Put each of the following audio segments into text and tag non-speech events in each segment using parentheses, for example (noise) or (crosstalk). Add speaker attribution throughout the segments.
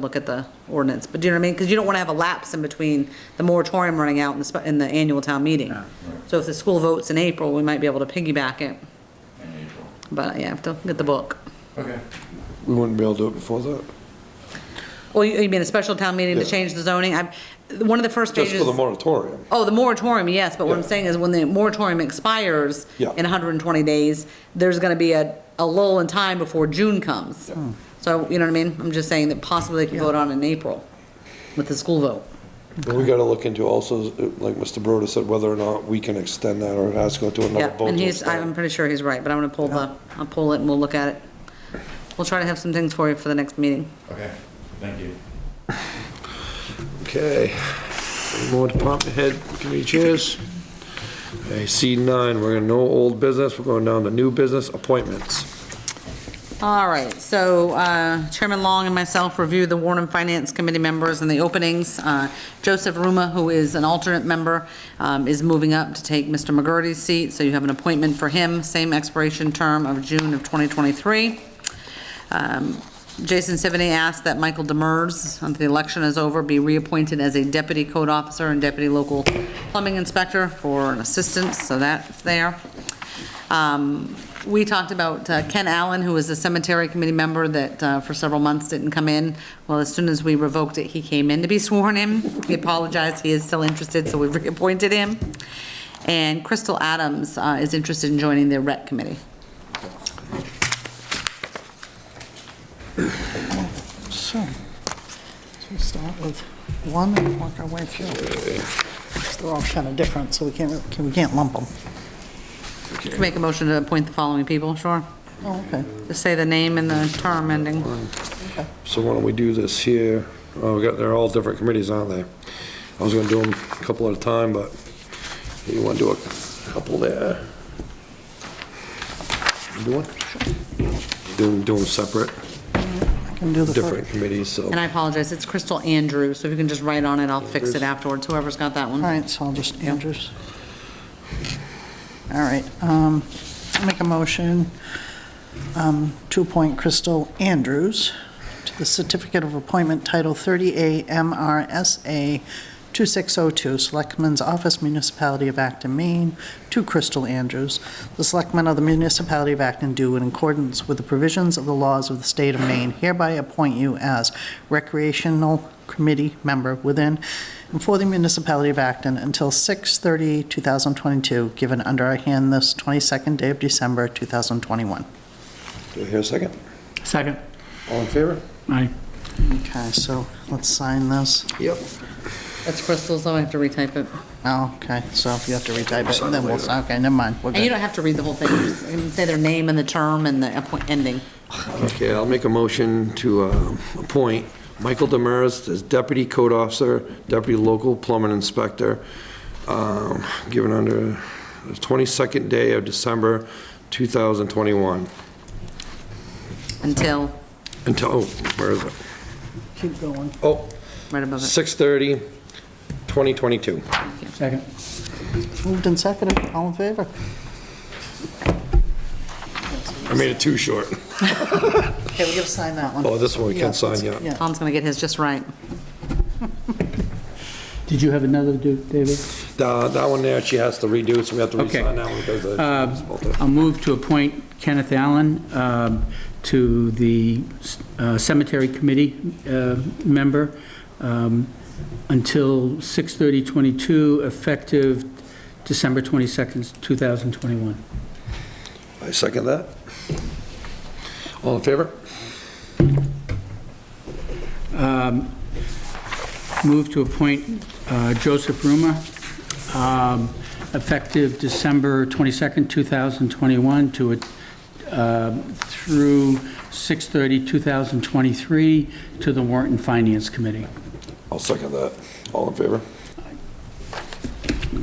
Speaker 1: look at the ordinance, but do you know what I mean? Because you don't want to have a lapse in between the moratorium running out and the, spe- and the annual town meeting. So if the school votes in April, we might be able to piggyback it,
Speaker 2: in April.
Speaker 1: but yeah, I have to get the book.
Speaker 2: Okay.
Speaker 3: We wouldn't be able to do it before that,
Speaker 1: Well, you you mean a special town meeting to
Speaker 3: Yeah.
Speaker 1: change the zoning? I, one of the first
Speaker 3: just
Speaker 1: pages.
Speaker 3: for the moratorium.
Speaker 1: Oh, the moratorium, yes, but what I'm
Speaker 3: Yeah.
Speaker 1: saying is when the moratorium expires
Speaker 3: Yeah.
Speaker 1: in 120 days, there's going to be a, a lull in time before June comes. So, you know what I mean? I'm just saying that possibly they can vote on in April with the school vote.
Speaker 3: But we gotta look into also, like Mr. Broder said, whether or not we can extend that or it has to go to another
Speaker 1: Yeah,
Speaker 3: vote.
Speaker 1: and
Speaker 3: to
Speaker 1: he's, I'm
Speaker 3: extend.
Speaker 1: pretty sure he's right, but I'm going to pull the, I'll pull it and we'll look at it. We'll try to have some things for you for the next meeting.
Speaker 2: Okay, thank you.
Speaker 3: Okay. More department head committee chairs. Okay, C nine, we're gonna no old business, we're going down to new business appointments.
Speaker 1: All right, so uh, Chairman Long and myself reviewed the Warren Finance Committee members and the openings. Uh, Joseph Ruma, who is an alternate member, um, is moving up to take Mr. McGurty's seat, so you have an appointment for him, same expiration term of June of 2023. Um, Jason Sivany asked that Michael Demers, until the election is over, be reappointed as a deputy code officer and deputy local plumbing inspector for an assistant, so that's there. Um, We talked about uh, Ken Allen, who was a cemetery committee member that uh, for several months didn't come in. Well, as soon as we revoked it, he came in to be sworn in. He apologized, he is still interested, so we reappointed him. And Crystal Adams uh, is interested in joining the rec committee.
Speaker 4: So, so we start with one and work our way through. 'Cause They're all kind of different, so we can't, really- we can't lump them.
Speaker 1: Can Make a motion to appoint the following people, sure.
Speaker 4: Oh, okay.
Speaker 1: Just say the name and the term ending.
Speaker 3: So why don't we do this here? Oh, we got, they're all different committees, aren't they? I was gonna do them a couple at a time, but you wanna do a couple there? Do one? Do, do them separate.
Speaker 4: I can do the
Speaker 3: different
Speaker 4: first.
Speaker 3: committees, so.
Speaker 1: And I apologize, it's Crystal Andrew, so if you can just write on it, I'll fix it afterwards, whoever's got that
Speaker 4: All
Speaker 1: one.
Speaker 4: right, so I'll just, Andrews. All right, um, I'll make a motion um, to appoint Crystal Andrews to the Certificate of Appointment Title 30A MRSA 2602, Selectman's Office, Municipality of Acton, Maine, to Crystal Andrews, the Selectmen of the Municipality of Acton do in accordance with the provisions of the laws of the state of Maine hereby appoint you as recreational committee member within and for the municipality of Acton until 6/30/2022, given under our hand this 22nd day of December 2021.
Speaker 3: Do I hear a second?
Speaker 5: Second.
Speaker 3: All in favor?
Speaker 5: Aye.
Speaker 4: Okay, so let's sign this.
Speaker 3: Yep.
Speaker 1: That's Crystal's, so I have to retype it.
Speaker 4: Oh, okay, so if you have to retype
Speaker 3: Sign
Speaker 4: it,
Speaker 3: it
Speaker 4: then we'll,
Speaker 3: later.
Speaker 4: okay, never mind. We're
Speaker 1: And you
Speaker 4: good.
Speaker 1: don't have to read the whole thing, just you can say their name and the term and the appoint- ending.
Speaker 3: Okay, I'll make a motion to um, appoint Michael Demers as Deputy Code Officer, Deputy Local Plumbing Inspector, um, given under the 22nd day of December 2021.
Speaker 1: Until,
Speaker 3: Until, oh, where is it?
Speaker 4: Keep going.
Speaker 3: Oh,
Speaker 1: right above it.
Speaker 3: 6:30, 2022.
Speaker 5: Second.
Speaker 4: Moved and seconded, all in favor?
Speaker 3: I made it too short. (laughs)
Speaker 4: Okay, we're gonna sign that one.
Speaker 3: Oh, this one we can sign, yeah.
Speaker 4: Yeah,
Speaker 1: Tom's gonna get his just right.
Speaker 5: Did you have another, Du- David?
Speaker 3: Uh, That one there, she has to redo, so we have to
Speaker 5: Okay. Uh,
Speaker 3: re-sign that one because of...
Speaker 5: I'll move to appoint Kenneth Allen um, to the uh, Cemetery Committee uh, member um, until 6 22 effective December 22nd, 2021.
Speaker 3: I second that. All in favor?
Speaker 5: Move to appoint uh, Joseph Ruma, um, effective December 22nd, 2021, to, a- um, through 6/30/2023, to the Warrant and Finance Committee.
Speaker 3: I'll second that. All in favor?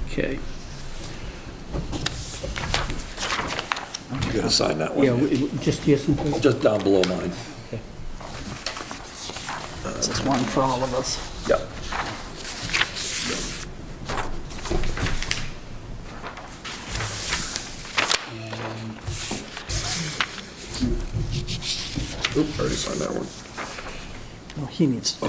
Speaker 5: Okay.
Speaker 3: You gotta sign that
Speaker 5: Yeah,
Speaker 3: one.
Speaker 5: w- w- just yes and please.
Speaker 3: Just down below mine.
Speaker 4: this is one for all of us.
Speaker 3: Yep. Oop, already signed that one.
Speaker 4: Oh, he needs to